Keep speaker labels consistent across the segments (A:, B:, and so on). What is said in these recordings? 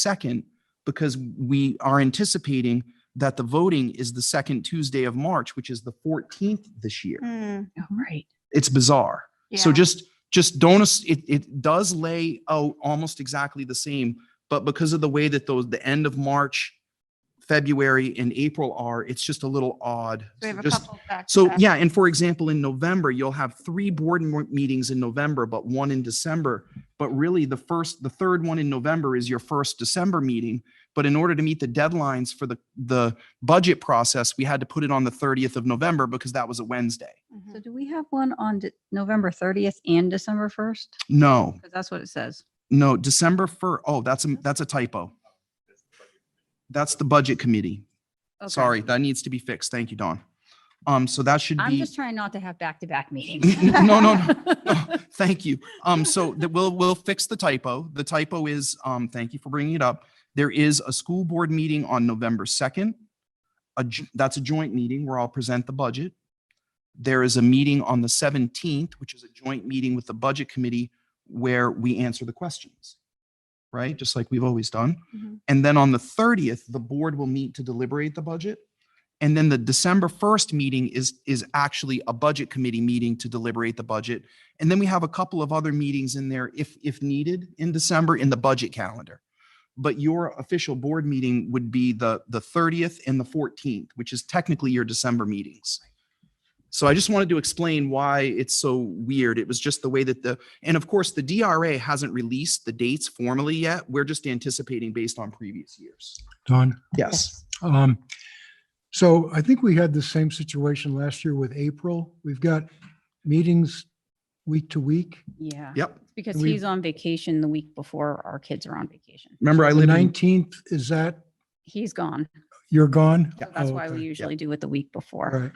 A: second because we are anticipating that the voting is the second Tuesday of March, which is the 14th this year.
B: Mm,
C: Oh, right.
A: It's bizarre. So
B: yeah.
A: just, just don't, ass- it, it does lay out almost exactly the same, but because of the way that those, the end of March, February and April are, it's just a little odd.
B: We
A: So
B: have a
A: just-
B: couple back to
A: So
B: back.
A: yeah, and for example, in November, you'll have three board mo- meetings in November, but one in December. But really, the first, the third one in November is your first December meeting. But in order to meet the deadlines for the, the budget process, we had to put it on the 30th of November because that was a Wednesday.
B: Mhm.
C: So do we have one on De- November 30th and December 1st?
A: No,
C: Because that's what it says.
A: no, December 1st. Oh, that's, a that's a typo. That's the budget committee.
C: Okay.
A: Sorry, that needs to be fixed. Thank you, Don. Um, so that should be.
C: I'm just trying not to have back-to-back meetings.
A: No, no, no. Thank you. Um, so that we'll, we'll fix the typo. The typo is, um, thank you for bringing it up. There is a school board meeting on November 2nd. A j- that's a joint meeting where I'll present the budget. There is a meeting on the 17th, which is a joint meeting with the budget committee where we answer the questions. Right? Just like we've always done.
B: Mhm.
A: And then on the 30th, the board will meet to deliberate the budget. And then the December 1st meeting is, is actually a budget committee meeting to deliberate the budget. And then we have a couple of other meetings in there if, if needed in December in the budget calendar. But your official board meeting would be the, the 30th and the 14th, which is technically your December meetings. So I just wanted to explain why it's so weird. It was just the way that the, and of course, the DRA hasn't released the dates formally yet. We're just anticipating based on previous years.
D: Don,
A: Yes.
D: um, so I think we had the same situation last year with April. We've got meetings week to week.
C: Yeah,
A: Yep.
C: It's because
D: We-
C: he's on vacation the week before our kids are on vacation.
A: Remember, I
D: The
A: live in,
D: nineteenth, is that,
C: He's gone.
D: you're gone?
C: So That's
D: Oh,
C: why we
D: okay.
C: usually do it the week
D: All
C: before.
D: Right,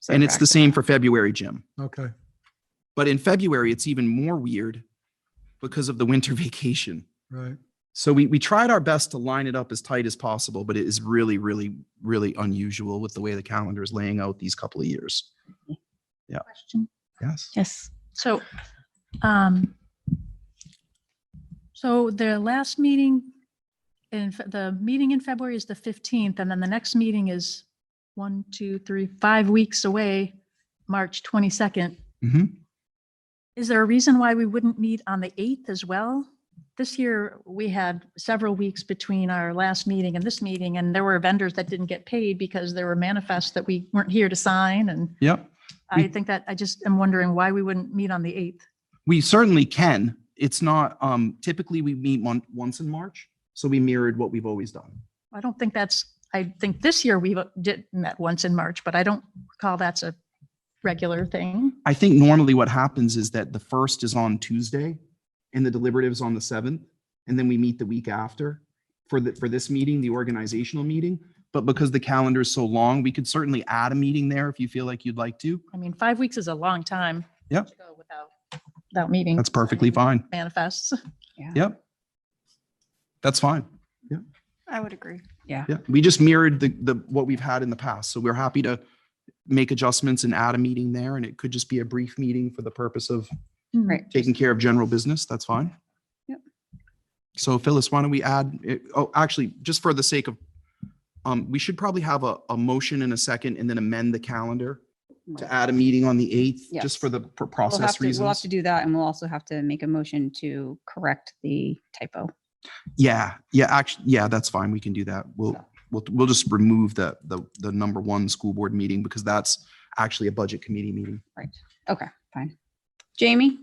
C: So
A: and it's the
C: back-to-back.
A: same for February, Jim.
D: okay.
A: But in February, it's even more weird because of the winter vacation.
D: Right.
A: So we, we tried our best to line it up as tight as possible, but it is really, really, really unusual with the way the calendar is laying out these couple of years.
E: question.
A: Yes.
E: Yes. So, um, so their last meeting in, Fe- the meeting in February is the 15th, and then the next meeting is one, two, three, five weeks away, March 22nd.
A: Mhm.
E: Is there a reason why we wouldn't meet on the 8th as well? This year, we had several weeks between our last meeting and this meeting, and there were vendors that didn't get paid because there were manifests that we weren't here to sign and.
A: Yep. We-
E: I think that, I just am wondering why we wouldn't meet on the 8th.
A: We certainly can. It's not, um, typically we meet mon- once in March. So we mirrored what we've always done.
E: I don't think that's, I think this year we did met once in March, but I don't recall that's a regular thing.
A: I think normally what happens is that the first is on Tuesday and the deliberative's on the seventh, and then we meet the week after for the, for this meeting, the organizational meeting. But because the calendar is so long, we could certainly add a meeting there if you feel like you'd like to.
E: I mean, five weeks is a long time.
A: Yep.
E: to go Without, without meeting.
A: That's perfectly fine.
E: Manifests.
A: Yep. That's fine.
B: I would agree.
A: Yeah, we just mirrored the, the, what we've had in the past. So we're happy to make adjustments and add a meeting there, and it could just be a brief meeting for the purpose of
C: Right.
A: taking care of general business, that's fine.
C: Yep.
A: So Phyllis, why don't we add, eh, oh, actually, just for the sake of, um, we should probably have a, a motion in a second and then amend the calendar to add a meeting on the eighth,
C: Yes.
A: just for the pr-
C: We'll have
A: process
C: to- We'll have
A: reasons.
C: to do that and we'll also have to make a motion to correct the typo.
A: Yeah, yeah, actually, yeah, that's fine. We can do that. We'll,
C: So-
A: we'll, we'll just remove the, the, the number one school board meeting because that's actually a budget committee meeting.
C: Okay, fine. Jamie,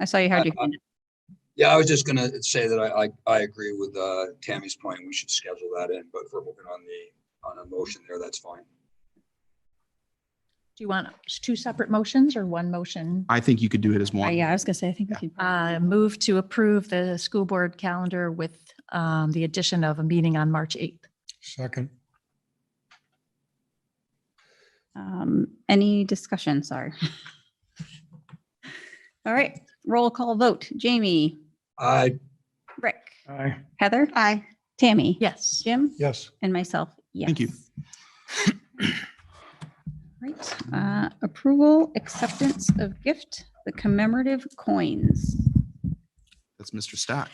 C: I saw
D: Uh,
C: you had your hand. up.
F: Yeah, I was just gonna say that I, I, I agree with, uh, Tammy's point. We should schedule that in, but if we're moving on the, on a motion there, that's fine.
E: Do you want two separate motions or one motion?
A: I think you could do it as
C: Uh,
A: one.
C: Yeah, I was gonna say, I think we
A: Yeah.
C: could.
E: Uh, move to approve the school board calendar with, um, the addition of a meeting on March 8th.
D: Second.
C: Um, any discussion? Sorry. All right, roll call vote. Jamie,
F: I,
C: Rick,
D: Aye.
C: Heather,
B: Aye.
C: Tammy.
E: Yes.
C: Jim
D: Yes.
C: and myself, yes.
A: Thank you.
C: Right, uh, approval, acceptance of gift, the commemorative coins.
A: That's Mr. Stack.